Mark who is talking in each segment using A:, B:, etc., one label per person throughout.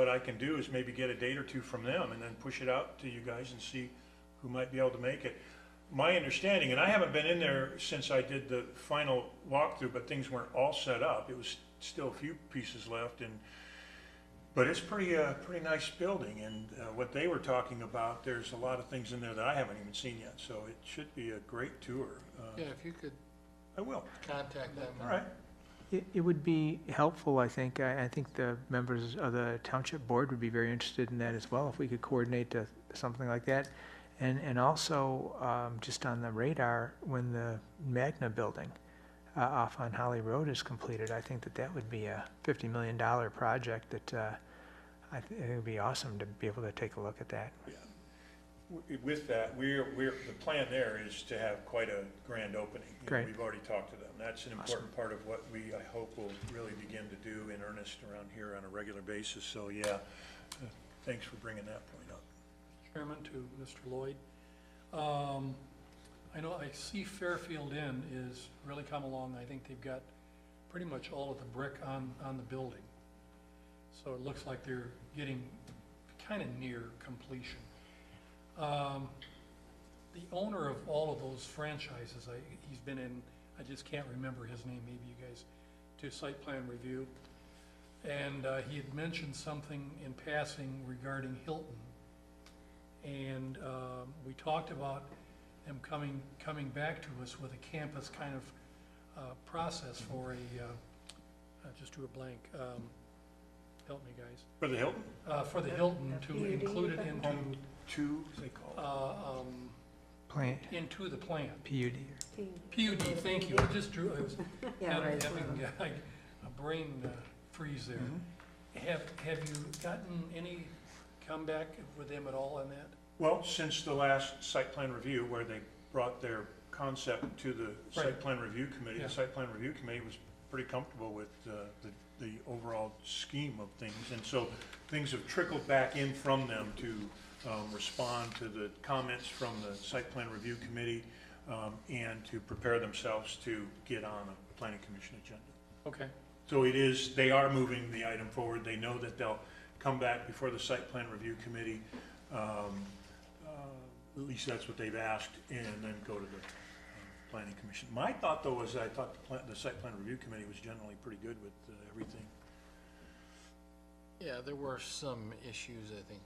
A: What I can do is maybe get a date or two from them and then push it out to you guys and see who might be able to make it. My understanding, and I haven't been in there since I did the final walkthrough, but things weren't all set up. It was still a few pieces left and, but it's pretty, uh, pretty nice building and, uh, what they were talking about, there's a lot of things in there that I haven't even seen yet, so it should be a great tour. Uh,
B: Yeah, if you could
A: I will,
B: contact them.
A: all right.
C: It, it would be helpful, I think. I, I think the members of the township board would be very interested in that as well, if we could coordinate to something like that. And, and also, um, just on the radar, when the Magna building, uh, off on Holly Road is completed, I think that that would be a fifty million dollar project that, uh, I, thi- it would be awesome to be able to take a look at that.
A: W- With that, we're, we're, the plan there is to have quite a grand opening. You know,
C: Great.
A: We've already talked to them. That's an important part of what we, I hope, will really begin to do in earnest around here on a regular basis. So, yeah, uh, thanks for bringing that point up.
D: Chairman to Mr. Lloyd. Um, I know, I see Fairfield Inn is really come along, I think they've got pretty much all of the brick on, on the building. So it looks like they're getting kind of near completion. Um, The owner of all of those franchises, I, he's been in, I just can't remember his name, maybe you guys, to site plan review. And uh, he had mentioned something in passing regarding Hilton. And um, we talked about them coming, coming back to us with a campus kind of uh, process for a, uh, uh, just drew a blank, um, help me guys,
A: For the Hilton,
D: Uh, for the Hilton to
E: PUD,
D: include it
E: but-
D: into,
A: home two, they call
D: uh, um,
C: Plan,
D: into the plan.
C: PUD.
D: PUD, thank you, I just drew, I was
E: Yeah,
D: having
E: right.
D: having, uh, a brain uh, freeze there. Have, have you gotten any comeback with them at all on that?
A: Well, since the last site plan review where they brought their concept to the site
D: Right.
A: plan review committee,
D: Yeah.
A: the site plan review committee was pretty comfortable with uh, the, the overall scheme of things. And so things have trickled back in from them to um, respond to the comments from the site plan review committee um, and to prepare themselves to get on a planning commission agenda.
D: Okay,
A: So it is, they are moving the item forward. They know that they'll come back before the site plan review committee. um, uh, At least that's what they've asked, and then go to the um, planning commission. My thought, though, was I thought the plan, the site plan review committee was generally pretty good with uh, everything.
B: Yeah, there were some issues, I think,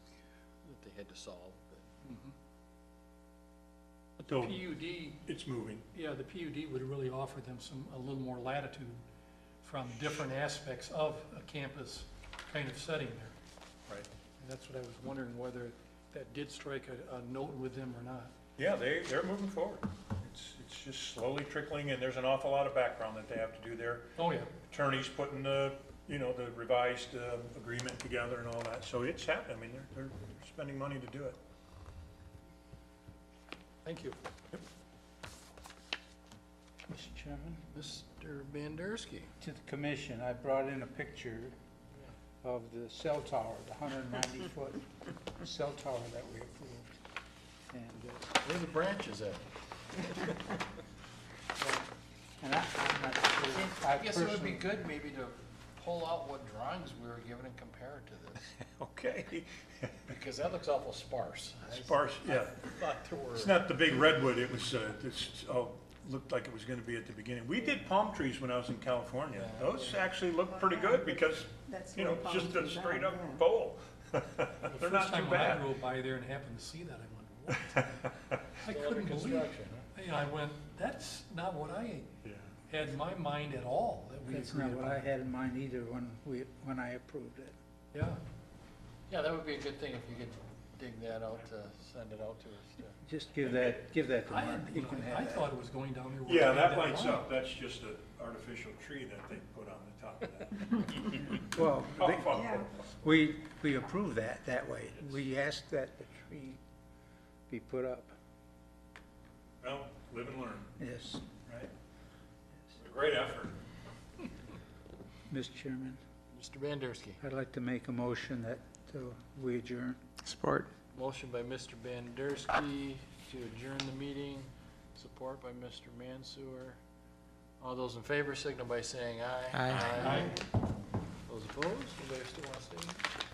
B: that they had to solve, but.
A: So
D: PUD
A: it's moving.
D: Yeah, the PUD would really offer them some, a little more latitude from different aspects of a campus kind of setting there.
A: Right.
D: And that's what I was wondering, whether that did strike a, a note with them or not.
A: Yeah, they, they're moving forward. It's, it's just slowly trickling, and there's an awful lot of background that they have to do there.
D: Oh, yeah,
A: attorneys putting the, you know, the revised um, agreement together and all that, so it's happening, I mean, they're, they're spending money to do it.
D: thank you.
F: Mr. Chairman,
B: Mr. Bandersky,
F: to the commission, I brought in a picture of the cell tower, the hundred and ninety foot cell tower that we approved. And, uh,
B: where are the branches at?
F: and I, I'm not sure, I
B: I guess it would be
F: personally,
B: good maybe to pull out what drawings we were given and compare it to this,
A: Okay.
B: because that looks awful sparse. I
A: Sparse, yeah,
B: Thought there
A: it's
B: were,
A: not the big redwood, it was, uh, this, oh, looked like it was gonna be at the beginning. We did palm trees when I was in California,
B: Yeah.
A: those actually look pretty good, because,
E: That's
A: you know,
E: where palm
A: just a
E: trees are,
A: straight up
E: yeah.
A: bowl. They're not too
D: The first time when I
A: bad.
D: drove by there and happened to see that, I went, what? I
B: still under
D: couldn't believe,
B: construction, huh?
D: you know, I went, that's not what I
A: Yeah.
D: had in my mind at all, that we
F: that's not
D: agreed
F: what I
D: upon.
F: had in mind either when we, when I approved it.
D: Yeah,
B: Yeah, that would be a good thing if you could dig that out, uh, send it out to us. to-
F: Just give that, give that to
D: I,
F: Mark,
D: had-
F: you can
D: I
F: have that.
D: thought it was going down there. where
A: Yeah,
D: they had
A: that lights
D: line.
A: up, that's just an artificial tree that they put on the top of that.
F: Well,
A: Oh,
F: they-
D: Oh.
E: Yeah.
F: we, we approved that, that way. We asked that the tree be put up,
A: Well, live and learn,
F: yes.
A: right? Great effort.
F: Mr. Chairman,
B: Mr. Bandersky,
F: I'd like to make a motion that uh, we adjourn.
C: Support.
B: motion by Mr. Bandersky to adjourn the meeting, support by Mr. Mansour. All those in favor signal by saying aye.
C: Aye.
B: Those opposed, anybody still want to stay?